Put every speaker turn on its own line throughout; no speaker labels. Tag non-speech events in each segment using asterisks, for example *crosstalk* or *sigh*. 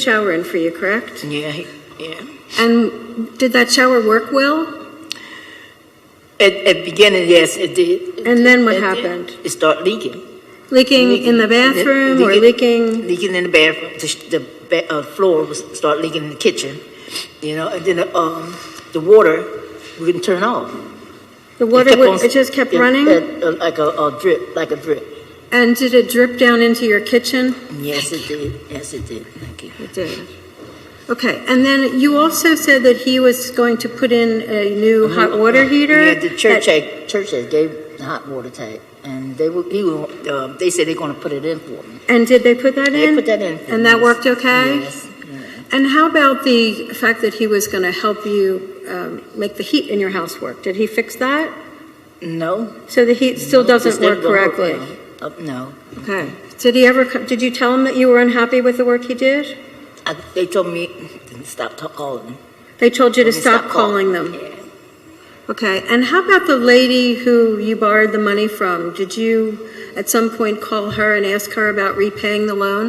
shower in for you, correct?
Yeah, he- yeah.
And did that shower work well?
At, at beginning, yes, it did.
And then what
It did.
happened?
It started leaking,
Leaking in the bathroom or leaking?
leaking in the bathroom. The, sh- the ba- uh, floor was start leaking in the kitchen, you know. And then um, the water we couldn't turn off. It
The water,
kept
would-
on-
it just kept
it-
running?
it- uh, like a, a drip, like a drip.
And did it drip down into your kitchen?
Yes, it did. Yes, it did. Thank you.
It did. Okay, and then you also said that he was going to put in a new hot water heater?
Uh-huh. Yeah, the church
that-
had, church had gave the hot water tank, and they were he were, uh, they said they're going to put it in for me.
And did they put that
They
in?
put that in. for
And
me.
that worked okay?
Yes. yeah.
And how about the fact that he was going to help you um, make the heat in your house work? Did he fix that?
No,
So the heat still
No,
doesn't
just never
work
gonna
correctly?
well. Uh, No,
Okay. Did he ever, co- did you tell him that you were unhappy with the work he did?
I, they told me to stop ta- calling.
They told you to
Told me
stop calling them?
Yeah.
Okay, and how about the lady who you borrowed the money from? Did you at some point call her and ask her about repaying the loan?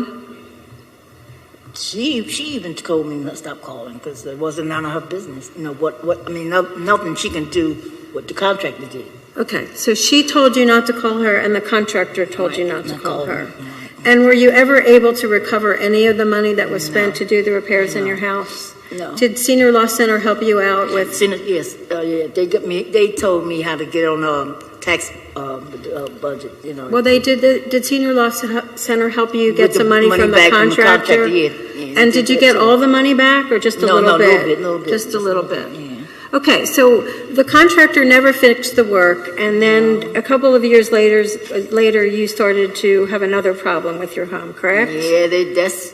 She she even told me to stop calling because it wasn't none of her business. You know what what I mean? No, nothing she can do what the contractor did.
Okay, so she told you not to call her and the contractor told you
Right,
not to
not
call
calling
her.
her, right.
And were you ever able to recover any of the money that was spent
No.
to do the repairs in
No.
your house?
No.
Did Senior Law Center help you out with,
Seen it- yes, uh, yeah. They got me. They told me how to get on um, tax uh, bu- uh, budget. You know.
well, they did, the- did Senior Law Ce- Center help you
with
get
the
some money from the
back
contractor?
Yeah, yeah, they
And did you
that
get
too.
all the money back or just a
No,
little
no,
bit?
little bit, little bit,
Just a little bit?
Yeah.
Okay, so the contractor never fixed the work, and then a couple of years later, later you started to have another problem with your home, correct?
Yeah, they, that's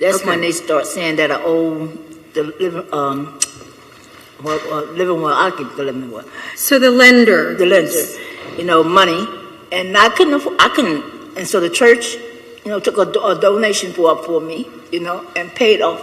that's
Okay.
when they start saying that I owe the living um well uh, living well I keep the living well
So the lender.
the lender, you know, money, and I couldn't afford, I couldn't, and so the church, you know, took a, do- a donation for for me, you know, and paid off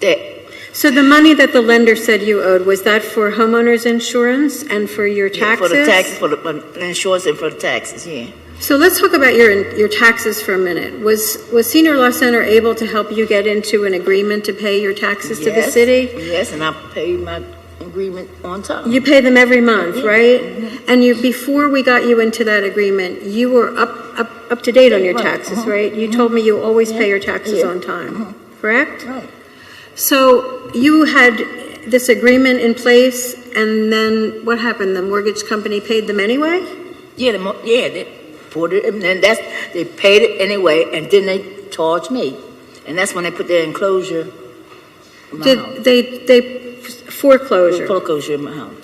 that.
So the money that the lender said you owed, was that for homeowners insurance and for your taxes?
for the taxes, for the for the insurance, and for the taxes. Yeah,
So let's talk about your, your taxes for a minute. Was, was Senior Law Center able to help you get into an agreement to pay your taxes to the
Yes,
city?
Yes, and I paid my agreement on time.
You pay them every month, right? And you, before we got you into that agreement, you were up, up, up to date on your
Right,
taxes,
uh-huh,
right? You told me you always pay your taxes
yeah, Uh-huh.
on time, correct?
Right.
So you had this agreement in place and then what happened? The mortgage company paid them anyway?
Yeah, the, mo- yeah, they poured it, and then that's they paid it anyway, and then they charged me, and that's when they put their enclosure. In my house.
Did they, they foreclosure?
Foreclosure in my house.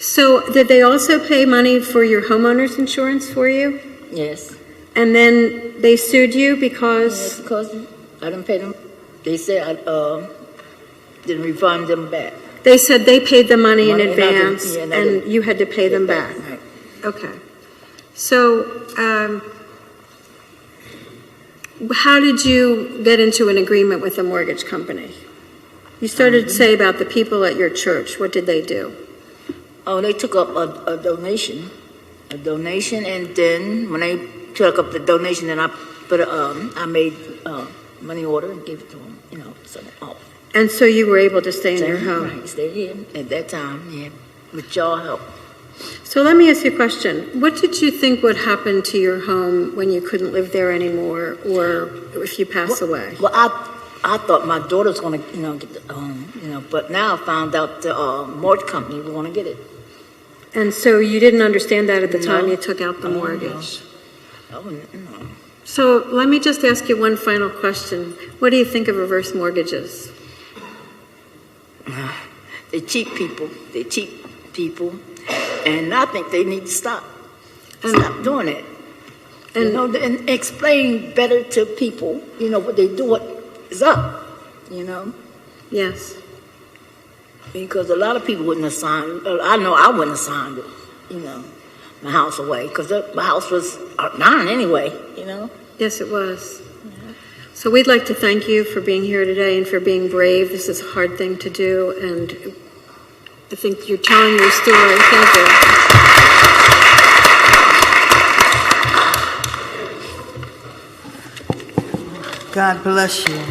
So did they also pay money for your homeowner's insurance for you?
Yes,
And then they sued you because?
yes, because I didn't pay them. They said I um didn't refund them back.
They said they paid the money in
Money, and I didn't-
advance,
yeah, and I didn't
and you had to pay them back.
Right.
Okay. So, um, how did you get into an agreement with the mortgage company? You started to say about the people at your church. What did they do?
Oh, they took up a, a donation, a donation, and then when they took up the donation, then I put a, um I made uh money order and gave it to them. You know, so oh. off.
And so you were able to stay in your home.
Mm-hmm. Right, stay here at that time, yeah, with y'all help.
So let me ask you a question. What did you think would happen to your home when you couldn't live there anymore, or if you pass away?
Well, I, I thought my daughter's gonna, you know, get the home, you know, but now I found out the, uh, mortgage company was gonna get it.
And so you didn't understand that at the time
No.
you took out the
Oh, no.
mortgage?
I wouldn't, you know. *sighs*
So let me just ask you one final question. What do you think of reverse mortgages?
They cheat people, they cheat people, and I think they need to stop,
And-
stop doing it. You
And-
know, and explain better to people, you know, what they do, what is up, you know?
Yes.
Because a lot of people wouldn't have signed, uh, I know I wouldn't have signed it, you know, my house away, because my house was uh, mine anyway, you know?
Yes, it was. So we'd like to thank you for being here today and for being brave. This is a hard thing to do, and I think you're telling your story. Thank you.
God bless you.